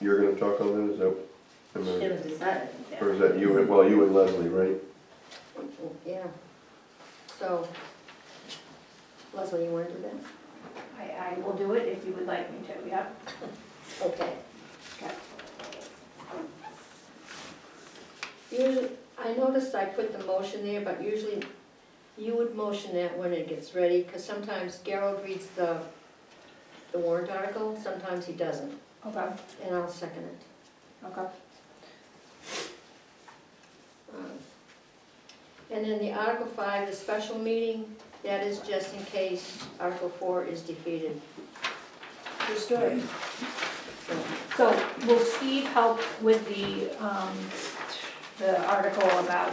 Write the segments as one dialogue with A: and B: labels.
A: you're gonna talk on that, is that? am I-
B: It was decided,
A: Or
B: yeah.
A: is that you, and- well, you and Leslie, right?
C: Yeah, so, Leslie, you want to do that?
B: I, I will do it if you would like me to, yeah.
C: Okay. Usually, I noticed I put the motion there, but usually you would motion that when it gets ready, because sometimes Gerald reads the, the warrant article, sometimes he doesn't,
B: Okay,
C: and I'll second it.
B: okay.
C: Um, And then the Article Five, the special meeting, that is just in case Article Four is defeated.
B: Understood.
C: So,
B: So will Steve help with the, um, the article about,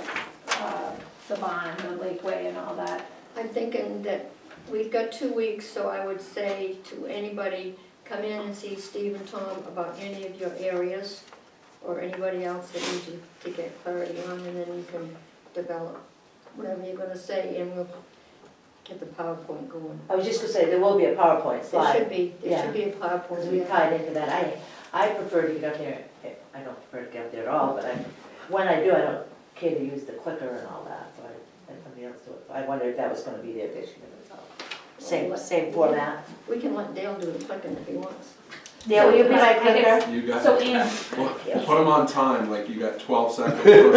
B: uh, the bond, the Lakeway and all that?
C: I'm thinking that we've got two weeks, so I would say to anybody, come in and see Steve and Tom about any of your areas or anybody else that needs you to get clarity on, and then you can develop whatever you're gonna say, and we'll get the PowerPoint going.
D: I was just gonna say, there will be a PowerPoint
C: There should
D: slide,
C: be, there should be a
D: because
C: PowerPoint.
D: we tied into that. I, I prefer to get up there, I don't prefer to get up there at all, but I, when I do, I don't care to use the clicker and all that, so I, let somebody else do it. I wondered if that was gonna be their vision of it all. Same, same format.
C: We can let Dale do the clicking if he wants.
D: Dale, will you be my
B: I guess-
D: clicker?
E: You got,
B: So
E: put
B: Ann,
E: them on time, like you got twelve seconds. Put 'em on-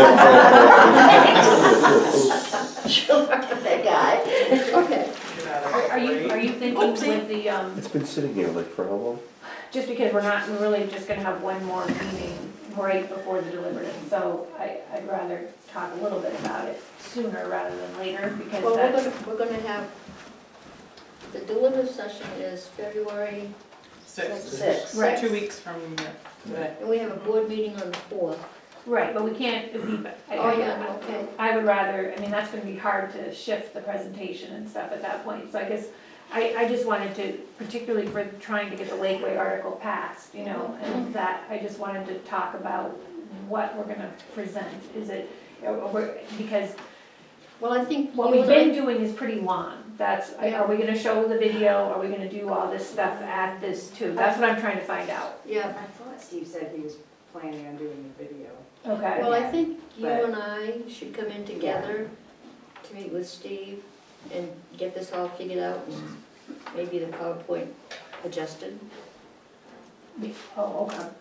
D: That guy.
C: Okay,
B: are are you, are you thinking with the, um,
A: It's been sitting here like for how long?
B: just because we're not, we're really just gonna have one more meeting right before the deliberative, so I, I'd rather talk a little bit about it sooner rather than later, because
C: well, we're
B: that's,
C: gonna, we're gonna have, the deliberative session is February,
F: Six,
D: Six.
B: Right.
F: two weeks from today.
C: and we have a board meeting on the fourth.
B: right, but we can't, if we, I-
C: Oh, yeah, okay.
B: I would rather, I mean, that's gonna be hard to shift the presentation and stuff at that point, so I guess, I, I just wanted to, particularly for trying to get the Lakeway article passed, you know,
C: Mm-hmm.
B: and that, I just wanted to talk about what we're gonna present, is it, or- or- because
C: Well, I think.
B: What
C: you
B: we've
C: and I-
B: been doing is pretty long, that's, are we gonna show the video, are we gonna do all this stuff at this too? That's what I'm trying to find out.
C: Yeah,
F: I thought Steve said he was planning on doing the video.
B: Okay.
C: well, I think you
F: But-
C: and I should come in together to meet with Steve and get this all figured out, and maybe the PowerPoint adjusted.
B: Oh, okay.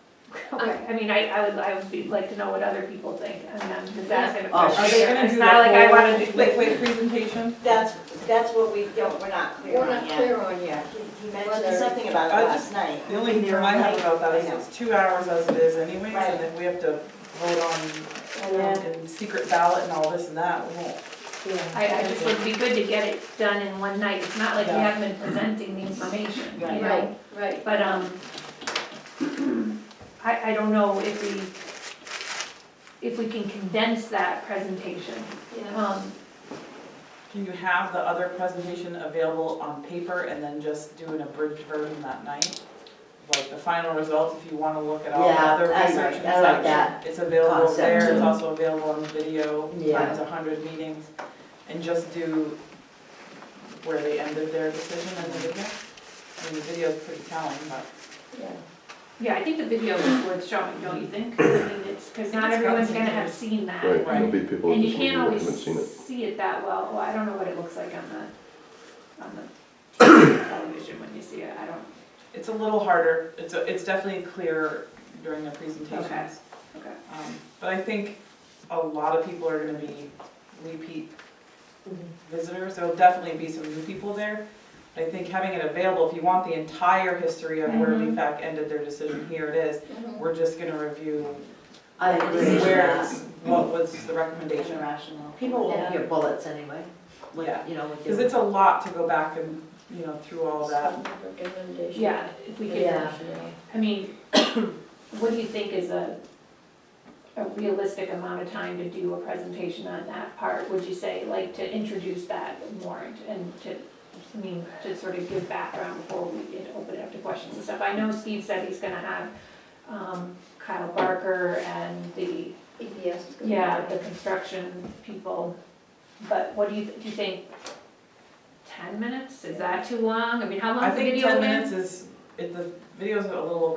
B: Okay, I mean, I, I would, I would be, like to know what other people think, I mean, I'm just asking a
D: Oh, are
B: question.
D: they
B: It's not like I wanna do-
F: Like, wait, presentation?
G: That's, that's what we don't, we're not clear
C: We're
G: on
C: not
G: yet.
C: clear on yet.
G: He
C: Whether-
G: mentioned something about
F: I
G: it last
F: just-
G: night.
F: The only concern I have about that is
G: I know.
F: it's two hours as it is anyways,
G: Right.
F: and if we have to vote on, and secret ballot and all this and that, we won't.
B: I, I just would be good to get it done in one night, it's not like we
F: Yeah.
B: haven't been presenting the information, you
G: Right.
B: know?
C: Right.
B: But, um, I, I don't know if we, if we can condense that presentation.
C: Yeah.
B: Um,
F: Can you have the other presentation available on paper and then just do an abridged version that night? Like the final results, if you wanna look at all the
D: Yeah,
F: other
D: I like-
F: research and
D: I like
F: such,
D: that
F: it's available
D: concept
F: there, it's
D: too.
F: also available on video,
D: Yeah.
F: times a hundred meetings. And just do where they ended their decision in the video. I mean, the video's pretty telling, but.
B: yeah, I think the video is worth showing, don't you think? I mean, it's, cause not
F: It's got
B: everyone's
F: some
B: gonna have
F: videos.
B: seen that.
A: Right, there'll be people at
B: And
A: this meeting
B: you can't
A: that
B: always
A: haven't seen it.
B: see it that well, well, I don't know what it looks like on the, on the television when you see it, I don't,
F: It's a little harder, it's, a- it's definitely clearer during the
B: Okay.
F: presentations.
B: okay.
F: Um, But I think a lot of people are gonna be repeat visitors, there'll definitely be some new people there. But I think having it available, if you want the entire history of where
B: Mhm.
F: VFAC ended their decision, here it is.
C: Mhm.
F: We're just gonna review
D: I agree.
F: where, what was the recommendation.
G: Irrational.
D: People won't hear bullets anyway, when,
F: Yeah.
D: you know, with
F: Because
D: your.
F: it's a lot to go back and, you know, through all that.
C: Recommendation.
B: Yeah, if we could,
D: Yeah.
B: I mean, what do you think is a, a realistic amount of time to do a presentation on that part? Would you say, like, to introduce that warrant and to, I mean, to sort of give background before we get, open it up to questions and stuff? I know Steve said he's gonna have um, Kyle Barker and the,
C: EPS is gonna. be-
B: yeah, the construction people, but what do you, do you think ten minutes? Is that too long? I mean, how
F: I
B: long's the
F: think
B: video
F: ten
B: again?
F: minutes is, it, the video's a little